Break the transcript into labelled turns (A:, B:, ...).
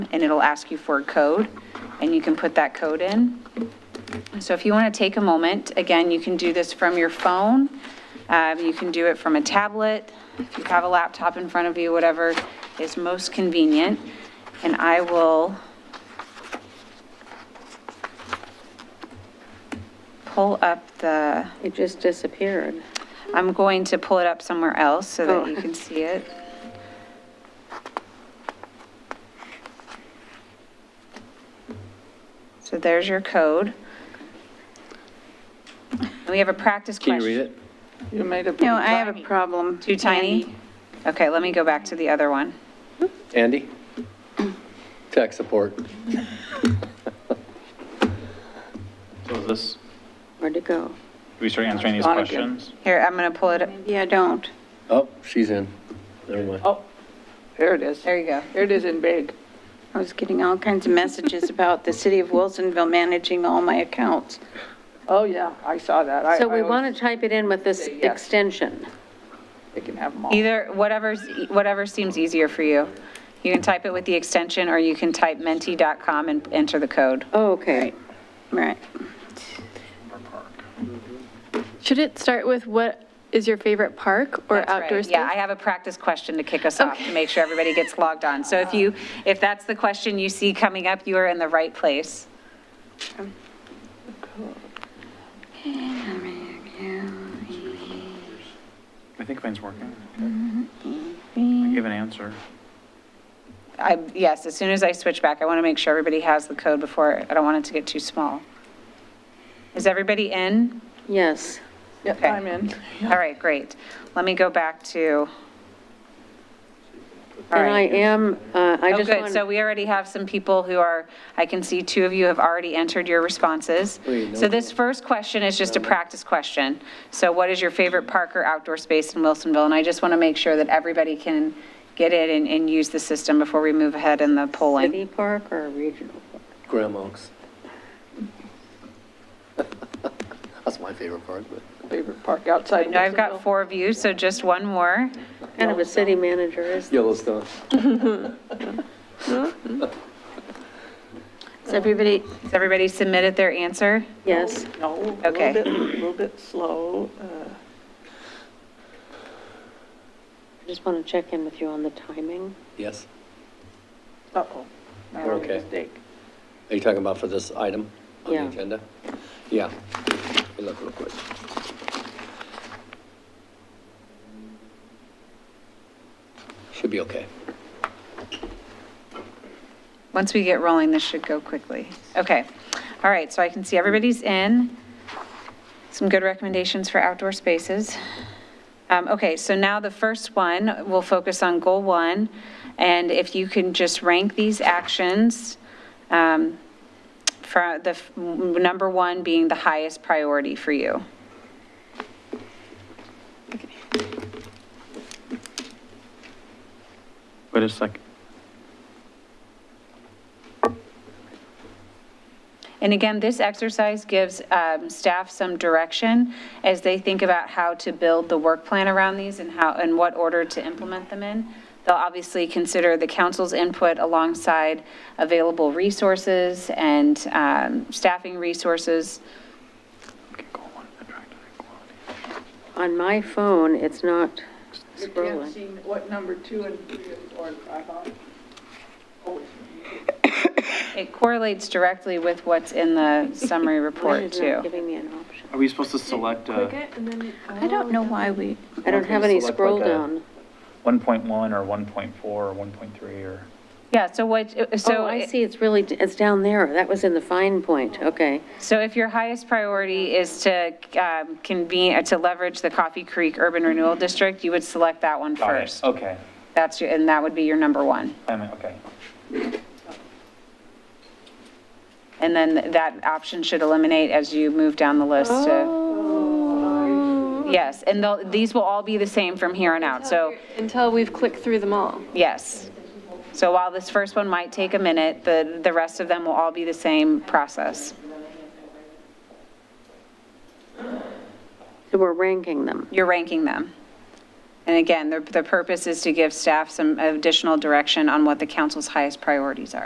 A: and it'll ask you for a code, and you can put that code in. So if you want to take a moment, again, you can do this from your phone, um, you can do it from a tablet, if you have a laptop in front of you, whatever is most convenient. And I will pull up the,
B: It just disappeared.
A: I'm going to pull it up somewhere else so
B: Oh.
A: that you can see it. So there's your code. And We have a practice
C: Can
A: question.
C: you read it?
B: You made a.
A: No, I have a
B: problem.
A: Too tiny? Okay, let me go back to the other one.
C: Andy? Tech support.
D: So is this,
B: Where'd it go?
D: do we start answering these
B: Gone again.
D: questions?
A: Here, I'm going to pull it, up.
B: Yeah, don't.
C: Oh, she's in. Never mind.
E: Oh, there it is.
A: there you go.
E: There it is in big.
B: I was getting all kinds of messages about the city of Wilsonville managing all my accounts.
E: Oh, yeah, I saw that. I-
F: So
E: I
F: we
E: always
F: want to type it in with this
E: Say yes.
F: extension.
E: think They can have them all.
A: Either, whatever's, e, whatever seems easier for you. You can type it with the extension, or you can type menti.com and enter the code.
B: Oh, Okay. Right.
G: Should it start with what is your favorite park or
A: That's right.
G: outdoor space?
A: Yeah, I have a practice question to kick us off, to make sure everybody gets logged on. So
G: Uh-huh.
A: if you, if that's the question you see coming up, you are in the right place.
D: I think mine's working. I give an answer.
A: I, yes, as soon as I switch back, I want to make sure everybody has the code before, I don't want it to get too small. Is everybody in?
F: Yes.
E: Yep,
A: okay.
E: I'm in.
A: All right, great. Let me go back to. All
F: And I
A: right.
F: am, uh, I
A: Oh,
F: just
A: good,
F: want,
A: so we already have some people who are, I can see two of you have already entered your responses.
C: Wait, no.
A: So this first question is just a practice question. So what is your favorite park or outdoor space in Wilsonville? And I just want to make sure that everybody can get in and, and use the system before we move ahead in the polling.
F: city park or regional? park?
C: Graham Oaks. That's my favorite part, but.
E: Favorite park outside.
A: Now I've got
E: Wilsonville.
A: four of you, so just one more.
F: Kind of a city manager is.
C: Yellowstone.
A: Has everybody, has everybody submitted their answer?
F: Yes.
E: No, a little
A: Okay.
E: bit, a little bit slow. uh,
F: I just want to check in with you on the timing.
C: Yes.
E: Uh-oh. I made
C: Okay.
E: a mistake.
C: Are you talking about for this item on the
F: Yeah.
C: agenda? Yeah. Let me look real quick. Should be okay.
A: Once we get rolling, this should go quickly. Okay. All right, so I can see everybody's in. Some good recommendations for outdoor spaces. Um, Okay, so now the first one, we'll focus on goal one. And if you can just rank these actions, um, for the, f- m- number one being the highest priority for you.
D: Wait a sec.
A: And again, this exercise gives um, staff some direction as they think about how to build the work plan around these and how, and what order to implement them in. They'll obviously consider the council's input alongside available resources and um, staffing resources.
D: Okay, goal one, attract equality.
F: On my phone, it's not scrolling.
E: what number two and three or I thought. Oh,
A: It correlates directly with what's in the summary
F: Why
A: report
F: is it not
A: too.
F: giving me an option?
D: Are we supposed to select uh,
B: I don't know why we,
F: I don't
C: Okay,
F: have any
C: select
F: scroll
C: like a-
F: down.
D: 1.1 or 1.4 or 1.3 or?
A: Yeah, so what, so.
F: Oh, I
A: it-
F: see, it's really, it's down there. That was in the fine point, okay.
A: So if your highest priority is to um, convene, uh, to leverage the Coffee Creek Urban Renewal District, you would select that one
D: Got it.
A: first.
D: Okay,
A: That's, your- and that would be your number one.
D: I mean, okay.
A: And then that option should eliminate as you move down the list to, yes, and they'll- these will all be the same from here on out, so,
G: Until we've clicked through them all.
A: yes. So while this first one might take a minute, the, the rest of them will all be the same process.
F: So we're ranking them.
A: You're ranking them. And again, the, the purpose is to give staff some additional direction on what the council's highest priorities are.